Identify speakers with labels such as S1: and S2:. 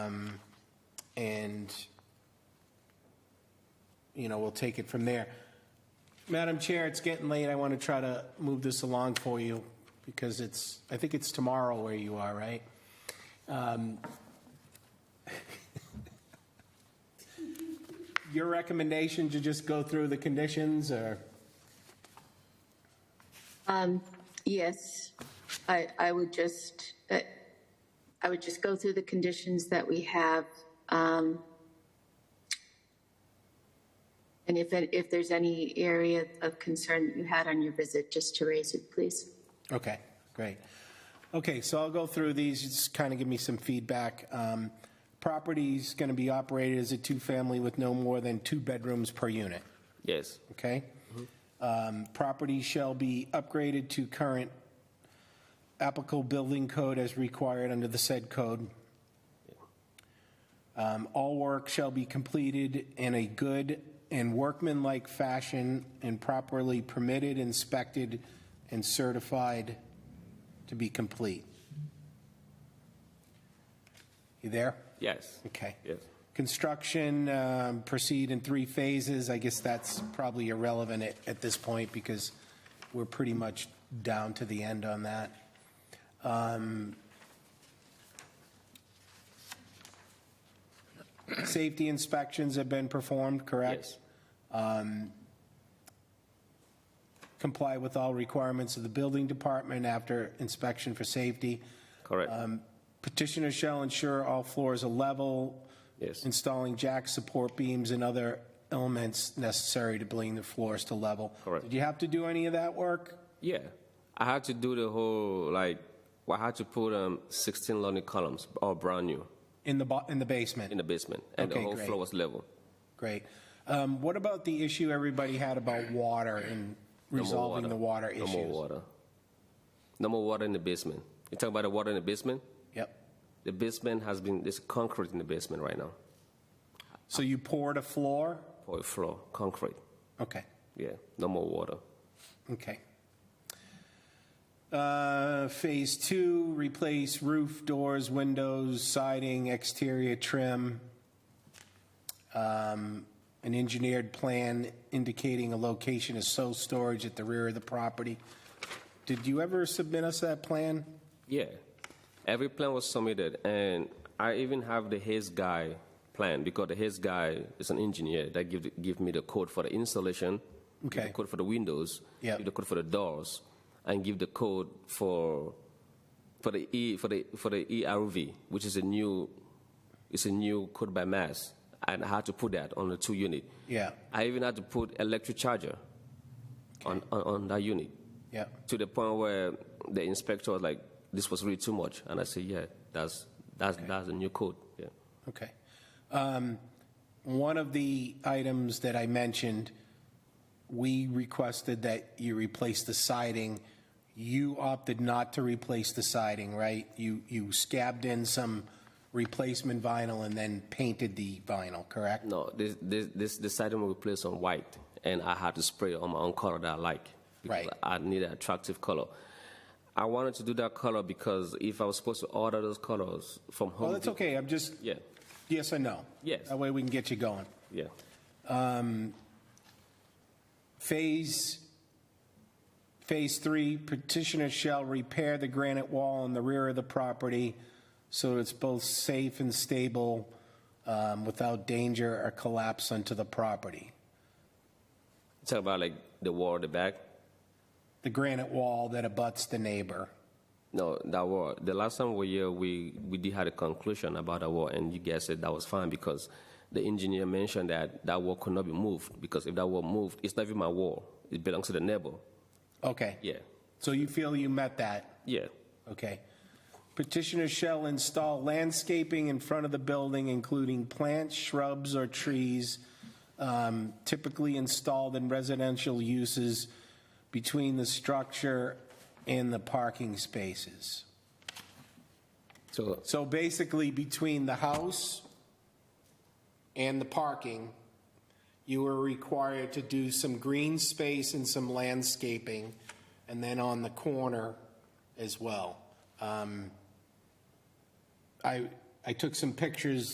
S1: Um, and, you know, we'll take it from there. Madam Chair, it's getting late. I want to try to move this along for you because it's, I think it's tomorrow where you are, right? Um, Your recommendation to just go through the conditions or?
S2: Yes, I, I would just, uh, I would just go through the conditions that we have. um, And if, it- if there's any area of concern that you had on your visit, just to raise it, please.
S1: Okay, great. Okay, so I'll go through these, just kind of give me some feedback. Um, Property's going to be operated as a two-family with no more than two bedrooms per unit,
S3: Yes.
S1: okay? Um, Property shall be upgraded to current applicable building code as required under the said code. Um, All work shall be completed in a good and workmanlike fashion and properly permitted, inspected, and certified to be complete. You there?
S3: Yes.
S1: Okay.
S3: Yes.
S1: Construction um, proceed in three phases. I guess that's probably irrelevant at, at this point because we're pretty much down to the end on that. Um, Safety inspections have been performed, correct?
S3: Yes.
S1: Comply with all requirements of the building department after inspection for safety.
S3: Correct.
S1: Um, Petitioner shall ensure all floors are level.
S3: Yes.
S1: Installing jack support beams and other elements necessary to bring the floors to level.
S3: Correct.
S1: Did you have to do any of that work?
S3: yeah. I had to do the whole like I had to put um 16 lonely columns, all brand new,
S1: In the, bo- in the
S3: in
S1: basement?
S3: the basement, and
S1: Okay,
S3: the whole
S1: great.
S3: floor was level.
S1: Great. Um, What about the issue everybody had about water and
S3: No more
S1: resolving the water
S3: No more
S1: issues?
S3: water. No more water in the basement. You talk about the water in the basement.
S1: Yep.
S3: The basement has been there's concrete in the basement right now
S1: So you poured a floor?
S3: for a floor, concrete.
S1: Okay,
S3: Yeah. No more water.
S1: okay. Uh, Phase two, replace roof, doors, windows, siding, exterior trim. Um, an engineered plan indicating a location of sole storage at the rear of the property. Did you ever submit us that plan?
S3: Yeah, every plan was submitted, and I even have the Hayes guy plan because the Hayes guy is an engineer that give give me the code for the installation, give
S1: Okay.
S3: the code for the windows,
S1: Yeah.
S3: give the code for the doors, and give the code for for the e for the for the ERV, which is a new it's a new code by mass, and I had to put that on the two unit.
S1: Yeah,
S3: I even had to put electric charger on, on on that unit
S1: yeah,
S3: to the point where the inspector was like, "This was really too much," and I said, "Yeah, that's that's that's a new code." Yeah,
S1: okay. Um, One of the items that I mentioned, we requested that you replace the siding. You opted not to replace the siding, right? You, you scabbed in some replacement vinyl and then painted the vinyl, correct?
S3: no, this this this the siding was placed on white, and I had to spray on my own color that I like because
S1: Right.
S3: I need an attractive color. I wanted to do that color because if I was supposed to order those colors from home,
S1: Well, that's okay, I'm just,
S3: yeah,
S1: yes and no.
S3: Yes.
S1: That way we can get you going.
S3: yeah,
S1: Phase, Phase 3, petitioner shall repair the granite wall in the rear of the property so it's both safe and stable um, without danger or collapse onto the property.
S3: talk about like the wall at the back.
S1: The granite wall that abuts the neighbor.
S3: No, that war. The last time we were here, we, we did had a conclusion about the war, and you guys said that was fine because the engineer mentioned that that wall could not be moved because if that wall moved, it's not even my wall. It belongs to the neighbor.
S1: Okay.
S3: Yeah,
S1: So you feel you met that?
S3: yeah,
S1: Okay. Petitioner shall install landscaping in front of the building, including plants, shrubs, or trees um, typically installed in residential uses between the structure and the parking spaces.
S3: so
S1: So basically, between the house and the parking, you were required to do some green space and some landscaping, and then on the corner as well. Um, I, I took some pictures